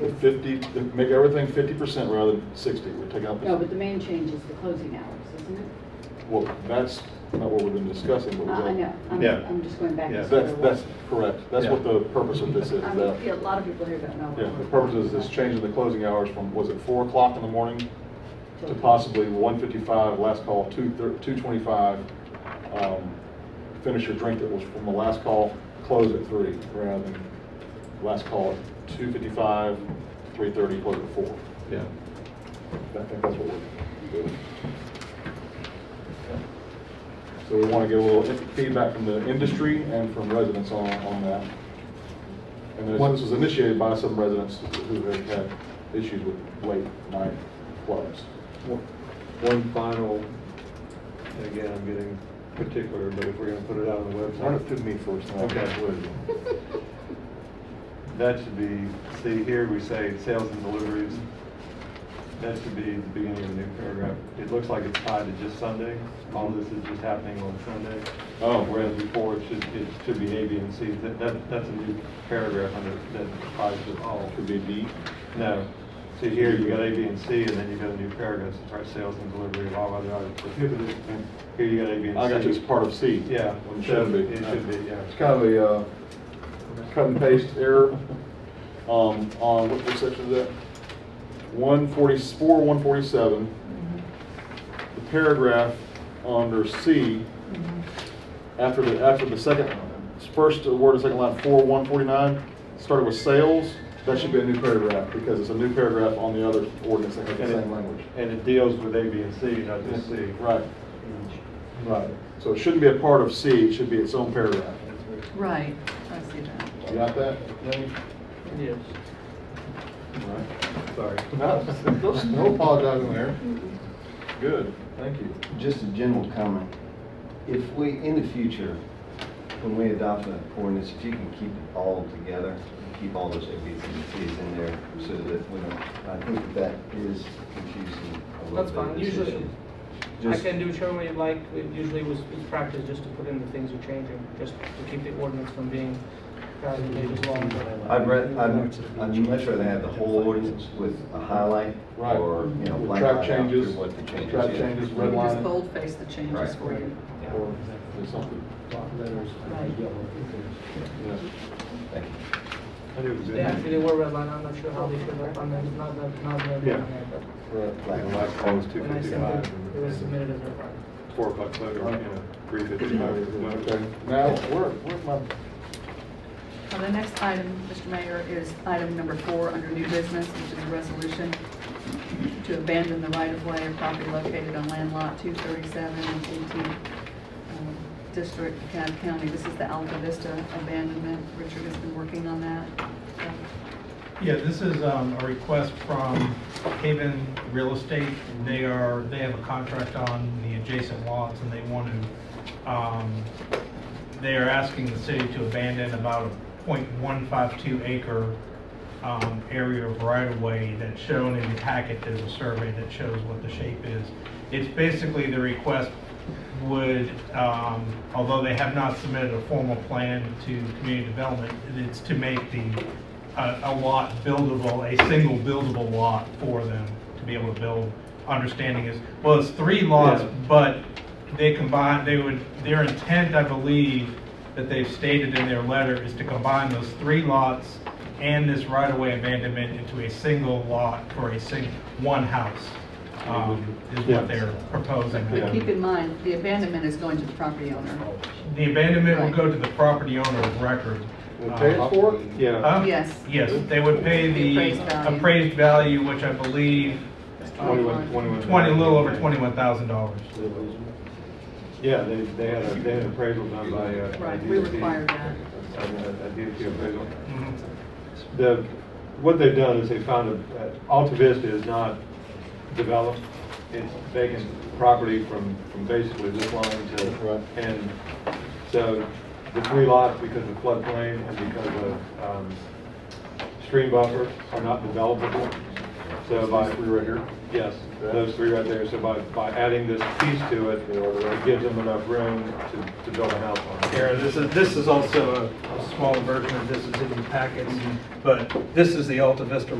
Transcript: the fifty, make everything fifty percent rather than sixty, we take out. the- No, but the main change is the closing hours, isn't it? Uh, Well, that's not what we've been discussing, but we I got. I know, I'm, Yeah. I'm just going back. to Yeah. square That's, one. that's correct, that's what Yeah. the purpose of this is, I that, mean, yeah, a lot of people here don't know. what yeah, the we're- purpose is this changing the closing hours from, was it four o'clock in the morning to possibly one fifty-five, last call, two, two twenty-five. um, Finish your drink that was from the last call, close at three, rather than last call at two fifty-five, three thirty, close at four. Yeah. I think that's what we're doing. So we want to get a little feedback from the industry and from residents on, on that. And this this was initiated by some residents who have had issues with late night clubs. One- One final, and again, I'm getting particular, but if we're gonna put it out on the Run it website, through me first. and I'll- Okay. that should be, see here, we say sales and deliveries. That should be the beginning of a new paragraph. It looks like it's tied to just Sunday. All this is just happening on Sunday. Oh. Whereas before, it should, it should be A, B, and C. That, that, that's a new paragraph under, that applies to all. Could be D. No. See here, you got A, B, and C, and then you got a new paragraph, that starts sales and delivery of all other items prohibited. And Here you got A, B, and C. I got you, it's part of C. Yeah. It should be. It should be, yeah. It's kind of a uh, cut and paste error um, on, what what section is that? 144, 147. The paragraph under C, after the, after the second, first word and second line, 4, 149, started with sales, that should be a new paragraph, because it's a new paragraph on the other ordinance that has the And it- same language. And it deals with A, B, and C, not just C. Right, right. So it shouldn't be a part of C, it should be its own paragraph. Right, I see that. You got that, Danny? Yes. Sorry. No, no- no apologizing there. Good, thank you. Just a general comment. If we, in the future, when we adopt an ordinance, if you can keep it all together, keep all those A, B, C, and Cs in there so that we don't, I think that that is confusing a little That's bit of fine. the Usually- system. I Just- can do generally like, it usually was, it's practice just to put in the things you're changing, just to keep the ordinance from being uh, thousand pages long. I'd rather, I'd I'd much rather have the whole ordinance with a highlight Right. or, you know, With blank track highlight through changes, what the changes track is. changes, You red can just line. boldface the changes Right. for you. Or there's something, yeah. Thank you. I do. They actually were redlined, I'm not sure how they should have, on that. not that, not that. Yeah. Right. Black and white. Close two When I sent it, it was fifty-five. submitted as redlined. Four o'clock, so, you know, three Okay, fifty-five. now, where, where's my, Well, the next item, Mr. Mayor, is item number four under new business, which is a resolution to abandon the right-of-way of property located on land lot 237 in the 18th um, District, DeKalb County. This is the Alta Vista abandonment. Richard has been working on that. Yeah, this is um, a request from Haven Real Estate. They are, they have a contract on the adjacent lots and they want to, um, they are asking the city to abandon about a .152 acre um, area of right-of-way that's shown in the packet. There's a survey that shows what the shape is. It's basically the request would, um, although they have not submitted a formal plan to community development, it's to make the, a a lot buildable, a single buildable lot for them to be able to build. Understanding is, well, it's three lots, Yeah. but they combine, they would, their intent, I believe, that they've stated in their letter is to combine those three lots and this right-of-way abandonment into a single lot for a sing, one house, um, is Yeah. what they're proposing. But keep in mind, the abandonment is going to the property owner. The abandonment will go to the property owner of record. Uh, we'll pay it for it? Yeah. Huh? Yes. Yes, they would pay The the appraised value. appraised value, which I believe, Twenty-one, twenty-one. twenty, a little over twenty-one thousand dollars. Yeah, they, they had, a- they had appraisal done by, uh. Right, a we DOT. require that. A- a- a DOT appraisal. Mm-hmm. The, what they've done is they found a, uh, Alta Vista is not developed. It's vacant property from, from basically this line Right. to, and so the three lots, because of floodplain and because of, um, stream buffer, are not developable. So by. These three right here? Yes, those three right there. So by, by adding this piece to it, it gives them enough room to, to build a house on. Aaron, this is, this is also a a smaller version of this is in the packets, but this is the Alta Vista